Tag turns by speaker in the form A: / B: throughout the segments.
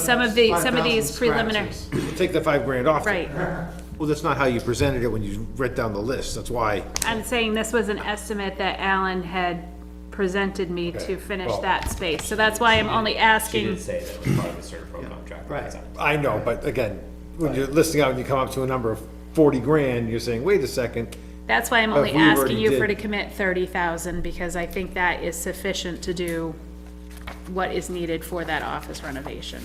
A: Some of the, some of
B: 5,000
A: these preliminary,
B: scratches.
C: Take the five grand off.
A: right.
C: Well, that's not how you presented it when you read down the list, that's why.
A: I'm saying this was an estimate that Alan had presented me to
C: Okay,
A: finish
C: well-
A: that space. So that's why I'm only
D: She
A: asking,
D: did say that it was part of the Serta Pro contract.
C: I know, but again, when you're listing out and you come up to a number of forty grand, you're saying, wait a second,
A: that's why I'm only
C: we already
A: asking you for to
C: did-
A: commit thirty thousand, because I think that is sufficient to do what is needed for that office renovation.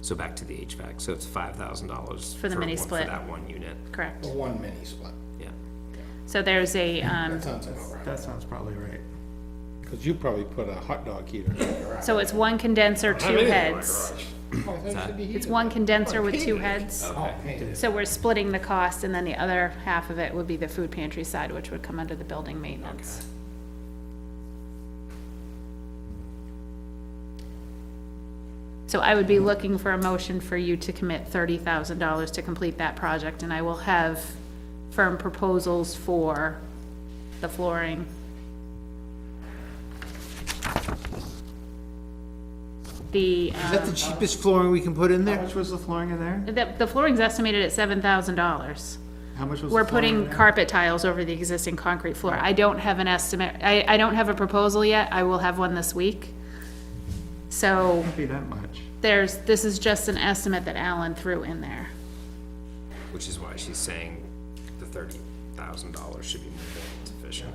D: So back to the HVAC, so it's five thousand dollars.
A: For the mini split.
D: For that one unit,
A: Correct.
E: One mini split.
D: yeah.
A: So there's a, um,
E: Sounds about right.
B: That sounds probably right.
C: because you probably put a hot dog heater.
A: so it's one condenser, two heads. It's one condenser with two heads. So we're splitting the cost, and then the other half of it would be the food pantry side, which would come under the building maintenance. So I would be looking for a motion for you to commit thirty thousand dollars to complete that project, and I will have firm proposals for the flooring. The,
C: Is that the cheapest flooring we can put in
B: How
C: there?
B: much was the flooring in there?
A: um, the, the flooring's estimated at seven thousand dollars.
B: How much was? the
A: We're
B: flooring in
A: putting
B: there?
A: carpet tiles over the existing concrete floor. I don't have an estimate, I, I don't have a proposal yet, I will have one this week. So
B: Be that much.
A: there's, this is just an estimate that Alan threw in there.
D: Which is why she's saying the thirty thousand dollars should be more than sufficient.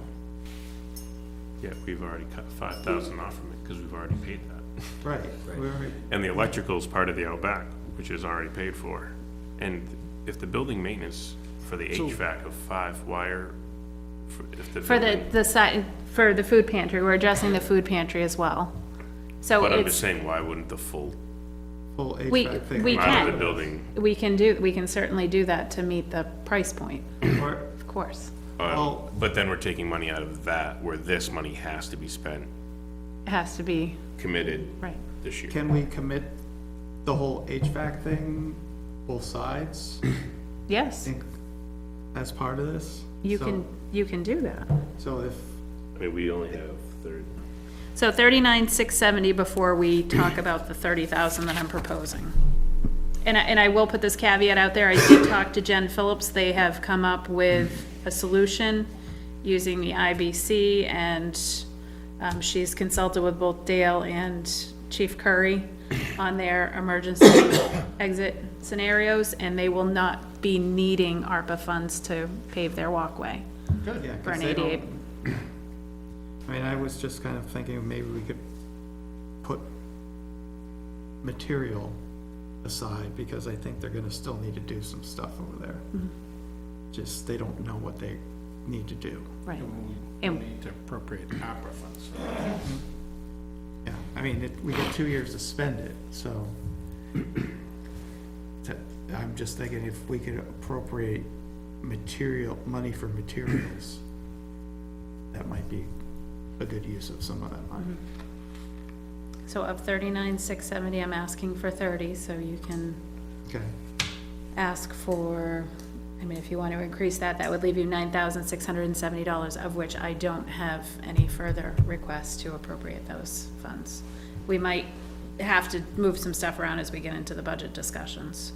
F: Yeah, we've already cut five thousand off from it, because we've already paid that.
B: Right. We already-
F: And the electrical's part of the outback, which is already paid for. And if the building maintenance for the HVAC of five wire, for- if the.
A: For the,
F: building-
A: the side, for the food pantry, we're addressing the food pantry as well. So
F: But I'm just
A: Oh, it's,
F: saying, why wouldn't the full
B: Full
A: We-
B: HVAC thing.
A: we-
F: amount of
A: can.
F: the building,
A: we can do, we can certainly do that to meet the price point,
B: Or-
A: of course.
F: uh,
B: Well-
F: but then we're taking money out of that, where this money has to be spent,
A: It has to be,
F: committed
A: right.
F: this year.
B: Can we commit the whole HVAC thing, both sides,
A: Yes,
B: think, as part of this?
A: you
B: So-
A: can, you can do that.
B: So if,
F: I mean, we only have thirty.
A: So thirty-nine, six seventy before we talk about the thirty thousand that I'm proposing. And I, and I will put this caveat out there, I did talk to Jen Phillips, they have come up with a solution using the IBC, and, um, she's consulted with both Dale and Chief Curry on their emergency exit scenarios, and they will not be needing ARPA funds to pave their walkway
B: yeah,
A: for an
B: cause they
A: ADA.
B: don't, I mean, I was just kind of thinking maybe we could put material aside, because I think they're gonna still need to do some stuff over there. Just, they don't know what they need to do.
A: Right,
E: We
A: And-
E: need to appropriate opera funds.
B: Yeah, I mean, it, we got two years to spend it, so. That- I'm just thinking if we could appropriate material, money for materials, that might be a good use of some of that money.
A: so of thirty-nine, six seventy, I'm asking for thirty, so you can
B: Okay,
A: ask for, I mean, if you want to increase that, that would leave you nine thousand six hundred and seventy dollars, of which I don't have any further requests to appropriate those funds. We might have to move some stuff around as we get into the budget discussions.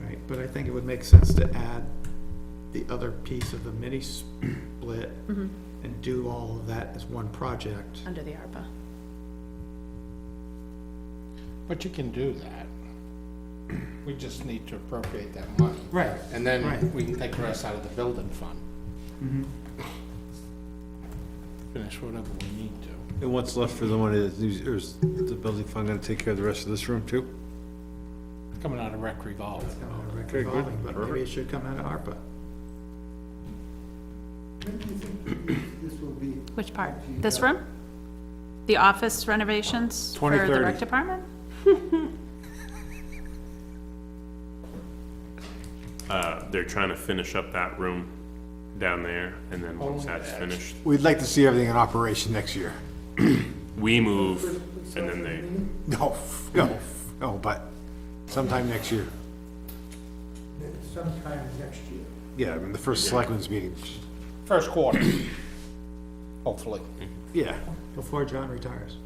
B: all right, but I think it would make sense to add the other piece of the mini split and do all of that as one project.
A: Under the ARPA.
E: But you can do that. We just need to appropriate that money.
B: Right.
E: And
B: Right. Mm-hmm.
E: then we can take the rest out of the building fund. Finish whatever we need to.
C: And what's left for the money, is the building fund gonna take care of the rest of this room too?
E: Coming out of rec revolve.
B: Kind of a
C: Okay, good.
B: revolving, But maybe it should come out of ARPA.
A: Which part? This room? The office renovations for the rec
C: 2030.
A: department?
F: Uh, they're trying to finish up that room down there, and then once that's finished,
C: We'd like to see everything in operation next year.
F: we move, and then they.
C: No, no, no, but sometime next year.
G: sometime next year.
C: Yeah, I mean, the first selectmen's meeting,
E: First quarter, hopefully.
C: yeah.
B: Before John retires.